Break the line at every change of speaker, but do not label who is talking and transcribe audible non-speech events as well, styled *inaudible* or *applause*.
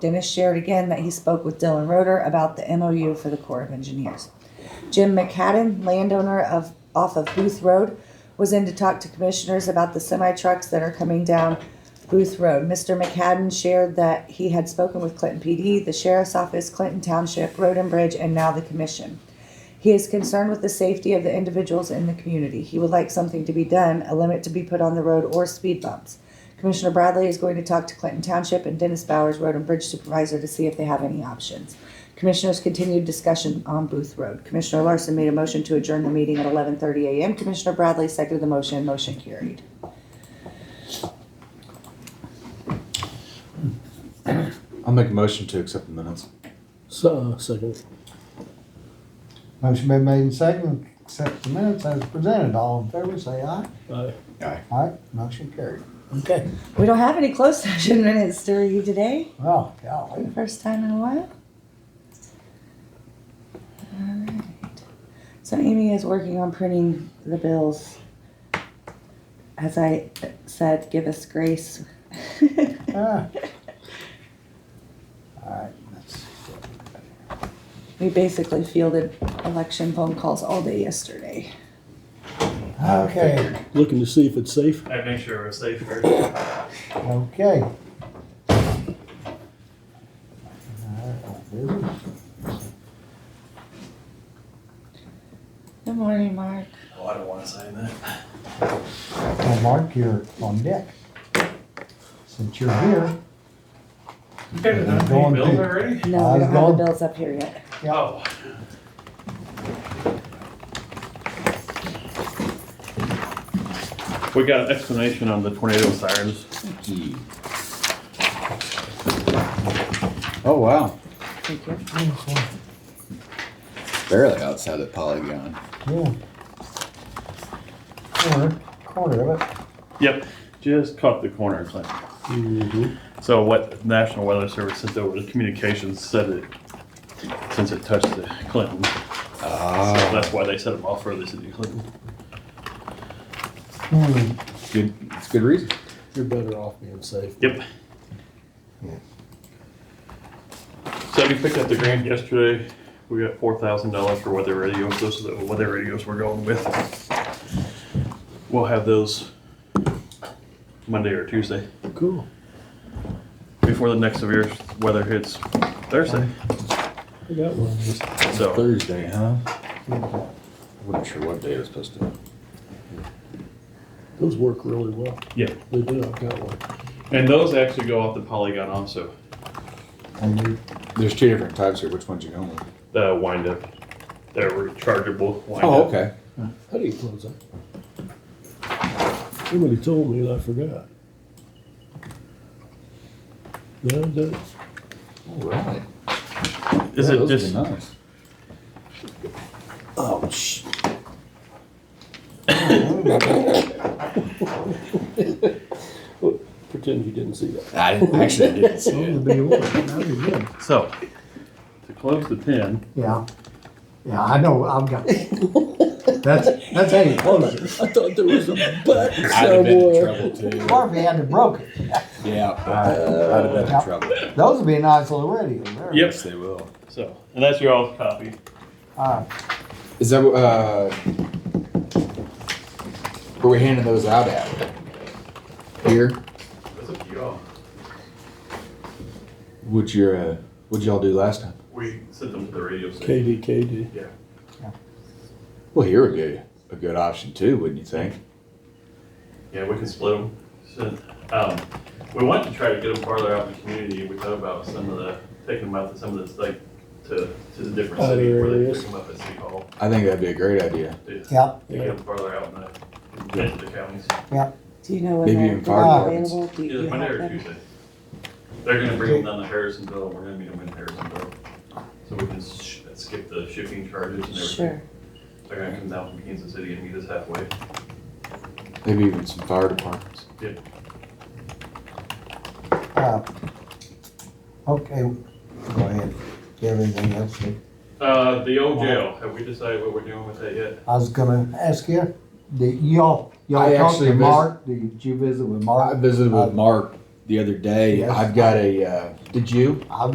Dennis shared again that he spoke with Dylan Roeder about the MOU for the Corps of Engineers. Jim McCadden, landowner of off of Booth Road, was in to talk to commissioners about the semi trucks that are coming down Booth Road. Mr. McCadden shared that he had spoken with Clinton PD, the Sheriff's Office, Clinton Township, Road and Bridge, and now the Commission. He is concerned with the safety of the individuals in the community. He would like something to be done, a limit to be put on the road or speed bumps. Commissioner Bradley is going to talk to Clinton Township and Dennis Bowers, Road and Bridge Supervisor, to see if they have any options. Commissioners continued discussion on Booth Road. Commissioner Larson made a motion to adjourn the meeting at eleven thirty AM. Commissioner Bradley seconded the motion. Motion carried.
I'll make a motion to accept the minutes.
So, uh, second.
Motion been made and seconded, accept the minutes as presented. All in favor, say aye.
Aye.
Aye.
Aye, motion carried.
Okay.
We don't have any closed *laughs* session minutes to review today.
Well, golly.
First time in a while. Alright. So Amy is working on printing the bills. As I said, give us grace. *laughs*
Ah. All right, let's see what we got here.
We basically fielded election phone calls all day yesterday.
Okay,
Looking to see if it's safe.
I'd make sure we're safe Oh, first.
okay. All right, business.
Good morning, Mark.
Oh, I don't want to sign that.
Well, Mark, you're on deck. Since you're here,
You
done
guys have
paying
done
bills
bills
already?
already?
No, we don't have
Osborne?
the bills up here yet.
Oh. We got an explanation on the tornado sirens.
Oh, wow.
Thank you.
Barely outside the Polygon.
yeah. Corner, corner of it.
Yep, just caught the corner, Clint.
Mm-hmm.
So what National Weather Service sent over the communications said it, since it touched the Clinton. So
Ah,
that's why they set them off further to the Clinton.
Hmm,
good. It's good reason.
You're better off being safe.
Yep. So we picked up the grant yesterday. We got four thousand dollars for weather radios. Those are the weather radios we're going with. We'll have those Monday or Tuesday
Cool.
before the next severe weather hits Thursday.
I got one.
So
Thursday, huh?
good job.
I Oh. wasn't sure what day it was supposed to.
Those work really well.
Yeah.
They do. I've got one.
and those actually go off the polygon also.
And you,
There's two different types here. Which one's you going with?
The wind up. They're rechargeable wind
Oh,
up.
okay.
How do you close that? Somebody told me and I forgot. No, that,
All right. Yeah, those
Is it
would be
just
nice?
oh, sh. Pretend you didn't see that.
I didn't, actually didn't see
*laughs* you be one, that'd be good.
so? To close the pin.
Yeah, yeah, I know, I've got, that's, that's how you close it.
I thought there was a button
I'd have been in
somewhere.
trouble too.
Or if you had to broke it,
Yeah, I'd have been in
Yep.
trouble.
those would be a nice little radio there.
Yep.
Yes, they will.
So and that's your all copy.
Uh,
Is that uh? Where we handing those out at? Here.
That's up to y'all.
What'd your uh, what'd y'all do last time?
We sent them to the radio station.
KD, KD.
Yeah.
Well, here would be a good option too, wouldn't you think?
Yeah, we can split them. um, we want to try to get them farther out in the community. We thought about some of the, taking them out to some of this, like, to, to the different
Other
city where they
areas.
pick them up at City Hall.
I think that'd be a great idea.
to- to
yeah,
Get them farther out in the, into the counties.
Do you know when
Maybe
they're
in fire
gonna be
departments.
available? Do you
Either
you
Monday
have
or
them?
Tuesday. They're gonna bring them down to Harrisonville. We're gonna meet them in Harrisonville. So we can sh- skip the shipping charges and everything.
Sure.
They're gonna come down from Kansas City and meet us halfway.
Maybe even some fire departments.
uh, okay, go ahead, you have anything else? Nick?
Uh, the old jail. Have we decided what we're doing with that yet?
I was gonna ask you, did y'all, y'all
I
talked
actually
to
vis-
Mark, did you visit with
I
Mark?
visited with Mark the other day.
Yes.
I've got a. Uh, did you?